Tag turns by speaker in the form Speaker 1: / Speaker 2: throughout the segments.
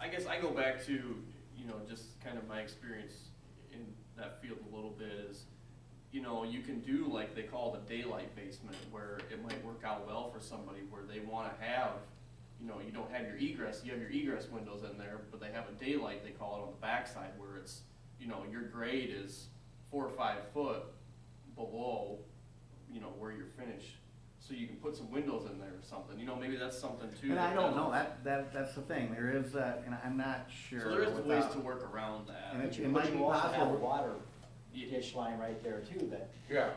Speaker 1: I go back to, you know, just kind of my experience in that field a little bit is, you know, you can do like they call the daylight basement, where it might work out well for somebody, where they wanna have, you know, you don't have your egress, you have your egress windows in there, but they have a daylight, they call it on the backside, where it's, you know, your grade is four or five foot below, you know, where you're finished. So you can put some windows in there or something, you know, maybe that's something too.
Speaker 2: And I
Speaker 1: that-
Speaker 2: don't know, that, that, that's the thing, there is that, and I'm not sure.
Speaker 1: So there is ways
Speaker 2: without-
Speaker 1: to work around that.
Speaker 2: And
Speaker 1: Yeah.
Speaker 2: it-
Speaker 3: But you
Speaker 2: it might
Speaker 3: but
Speaker 2: be
Speaker 3: you also have a
Speaker 2: possible,
Speaker 3: water
Speaker 1: Yeah.
Speaker 3: dish line right there too, that,
Speaker 4: Yeah,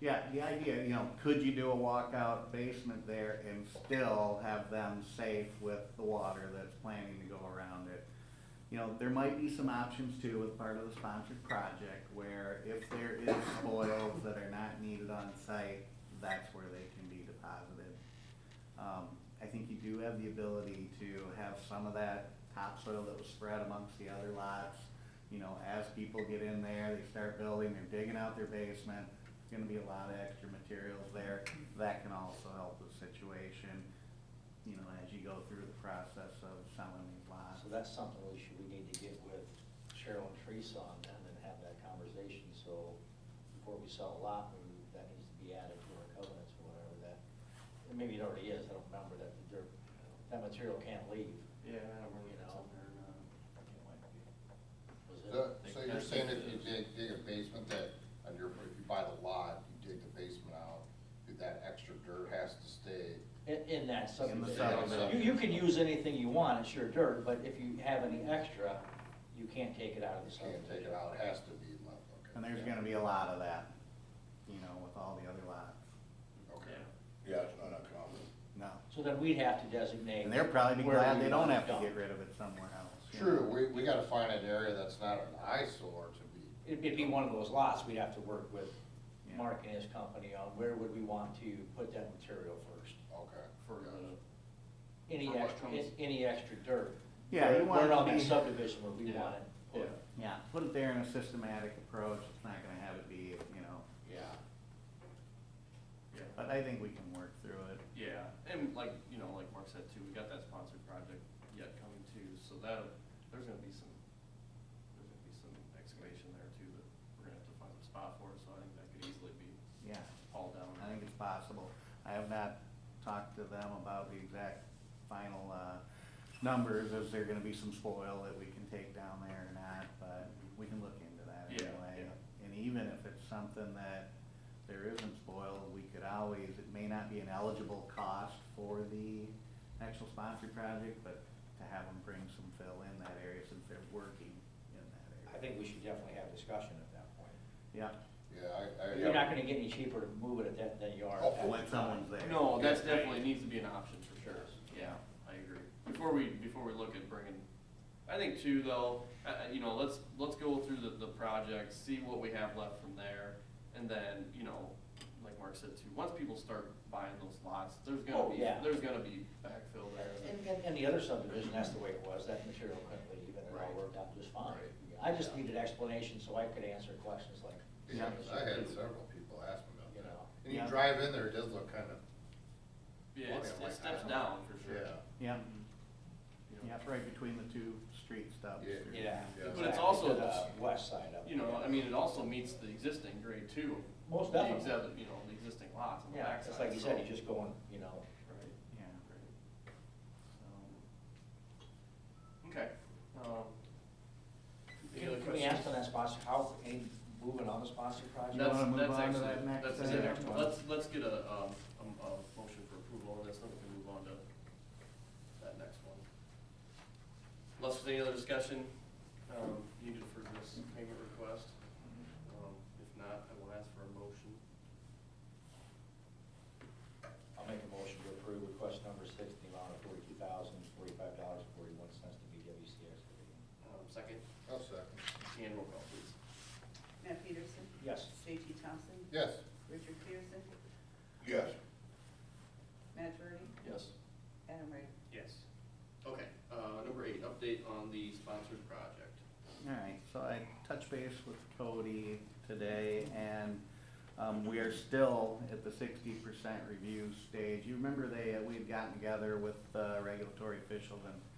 Speaker 2: yeah, the idea, you know, could you do a walkout basement there and still have them safe with the water that's planning to go around it? You know, there might be some options too with part of the sponsored project where if there is spoils that are not needed on site, that's where they can be deposited. Um, I think you do have the ability to have some of that topsoil that was spread amongst the other lots. You know, as people get in there, they start building, they're digging out their basement, there's gonna be a lot of extra materials there. That can also help the situation, you know, as you go through the process of selling these lots.
Speaker 3: so that's something we should, we need to get with Cheryl and Teresa on then and have that conversation, so before we sell a lot, we, that needs to be added to our covenants or whatever that, and maybe it already is, I don't remember that, the dirt, that material can't leave.
Speaker 1: Yeah, I don't remember if it's
Speaker 3: You know.
Speaker 1: in there or not.
Speaker 3: Was it?
Speaker 4: so so you're saying if you dig, dig a basement that, on your, if you buy the lot, you dig the basement out, that extra dirt has to stay.
Speaker 3: In, in that subdivision.
Speaker 4: subdivision.
Speaker 3: You, you can use anything you want, it's your dirt, but if you have any extra, you can't take it out of the
Speaker 4: You can't
Speaker 3: subdivision.
Speaker 4: take it out, it has to be left, okay.
Speaker 2: And there's gonna be a lot of that, you know, with all the other lots.
Speaker 4: Okay.
Speaker 1: Yeah.
Speaker 4: Yeah, it's not uncommon.
Speaker 2: No.
Speaker 3: So then we'd have to designate.
Speaker 2: And they're probably be
Speaker 3: where
Speaker 2: glad
Speaker 3: we
Speaker 2: they don't
Speaker 3: want it
Speaker 2: have to
Speaker 3: dumped.
Speaker 2: get rid of it somewhere else. you know.
Speaker 4: True, we, we gotta find an area that's not an eyesore to be,
Speaker 3: It'd be- It'd be one of those lots, we'd have to work with
Speaker 2: Yeah.
Speaker 3: Mark and his company on where would we want to put that material first?
Speaker 4: okay.
Speaker 1: For
Speaker 4: gotcha.
Speaker 1: the,
Speaker 3: Any
Speaker 1: For what
Speaker 3: extra,
Speaker 1: comes-
Speaker 3: any extra dirt.
Speaker 2: Yeah, you want
Speaker 3: Where-
Speaker 2: it
Speaker 3: Where
Speaker 2: to
Speaker 3: on that
Speaker 2: be-
Speaker 3: subdivision where we
Speaker 1: Yeah.
Speaker 3: want it
Speaker 1: yeah,
Speaker 3: put.
Speaker 2: Yeah, put it there in a systematic approach, it's not gonna have it be, you know,
Speaker 4: Yeah.
Speaker 1: yeah,
Speaker 2: but I think we can work through it.
Speaker 1: yeah, and like, you know, like Mark said too, we got that sponsored project yet coming too, so that, there's gonna be some, there's gonna be some excavation there too, that we're gonna have to find a spot for, so I think that could easily be
Speaker 2: Yeah,
Speaker 1: hauled down.
Speaker 2: I think it's possible. I have not talked to them about the exact final, uh, numbers, is there gonna be some spoil that we can take down there or not, but we can look into that
Speaker 1: Yeah,
Speaker 2: anyway. And even if it's something that there isn't spoil, we could always, it may not be an eligible cost for the actual sponsored project, but to have them bring some fill in that area since they're working in that
Speaker 3: I
Speaker 2: area.
Speaker 3: think we should definitely have discussion at that point.
Speaker 2: Yeah,
Speaker 4: Uh, Yeah, I, I.
Speaker 3: You're not gonna get any cheaper to move it at that than you are. at that
Speaker 2: when someone's there.
Speaker 1: No, that's definitely needs to be an option for sure.
Speaker 2: Yeah.
Speaker 1: Yeah, I agree. Before we, before we look at bringing, I think too though, uh, uh, you know, let's, let's go through the, the project, see what we have left from there. And then, you know, like Mark said too, once people start buying those lots, there's
Speaker 3: Oh,
Speaker 1: gonna be,
Speaker 3: yeah.
Speaker 1: there's gonna be backfill there.
Speaker 3: And, and- and the other subdivision, that's the way it was, that material couldn't leave, and it all
Speaker 4: Right.
Speaker 3: worked out just fine.
Speaker 4: Right.
Speaker 3: I just needed explanation so I could answer questions like.
Speaker 4: Yeah, 'cause I had several people ask me about
Speaker 3: You
Speaker 4: that.
Speaker 3: know.
Speaker 4: And you
Speaker 2: Yeah.
Speaker 4: drive in there, it does look kind of,
Speaker 1: Yeah, it's-
Speaker 4: Yeah.
Speaker 1: it steps down for sure.
Speaker 4: yeah.
Speaker 2: Yeah,
Speaker 1: You know.
Speaker 2: yeah, it's right between the two street stubs.
Speaker 4: Yeah.
Speaker 2: there.
Speaker 3: Yeah.
Speaker 4: But it's
Speaker 3: exactly,
Speaker 1: also
Speaker 3: to the
Speaker 1: just-
Speaker 3: West side of it.
Speaker 1: You know, I mean, it also meets the existing grade two.
Speaker 3: Most
Speaker 1: the
Speaker 3: definitely.
Speaker 1: exhibit, You know, the existing lots on the
Speaker 3: Yeah,
Speaker 1: backside.
Speaker 3: it's like you said,
Speaker 1: so-
Speaker 3: you just going, you know,
Speaker 1: Right,
Speaker 2: Yeah,
Speaker 1: right.
Speaker 2: so,
Speaker 1: Okay. Um, any other
Speaker 3: can can we
Speaker 1: questions?
Speaker 3: ask on that sponsor, how, any movement on the sponsor project?
Speaker 2: You wanna
Speaker 1: That's,
Speaker 2: move
Speaker 1: that's
Speaker 2: on to
Speaker 1: actually,
Speaker 2: that next,
Speaker 1: that's
Speaker 2: uh,
Speaker 1: the
Speaker 2: next
Speaker 1: next
Speaker 2: one?
Speaker 1: one. Let's, let's get a, um, a, a motion for approval on this, then we can move on to that next one. Unless there's any other discussion, um, needed for this payment request. Um, if not, I will ask for a motion.
Speaker 3: I'll make a motion to approve request number six, in the amount of forty-two thousand, forty-five dollars, forty-one cents to BWC Excavating.
Speaker 1: Um, second,
Speaker 4: I'll second.
Speaker 1: and roll call, please.
Speaker 5: Matt Peterson?
Speaker 3: Yes.
Speaker 5: J.T. Thompson?
Speaker 4: Yes.
Speaker 5: Richard Peterson?
Speaker 4: Yes.
Speaker 5: Matt Verdi?
Speaker 1: Yes.
Speaker 5: Adam Ryder?
Speaker 1: Yes. Okay, uh, number eight, update on the sponsored project.
Speaker 2: all right, so I touched base with Cody today, and, um, we are still at the sixty percent review stage. You remember they, uh, we had gotten together with, uh, regulatory officials and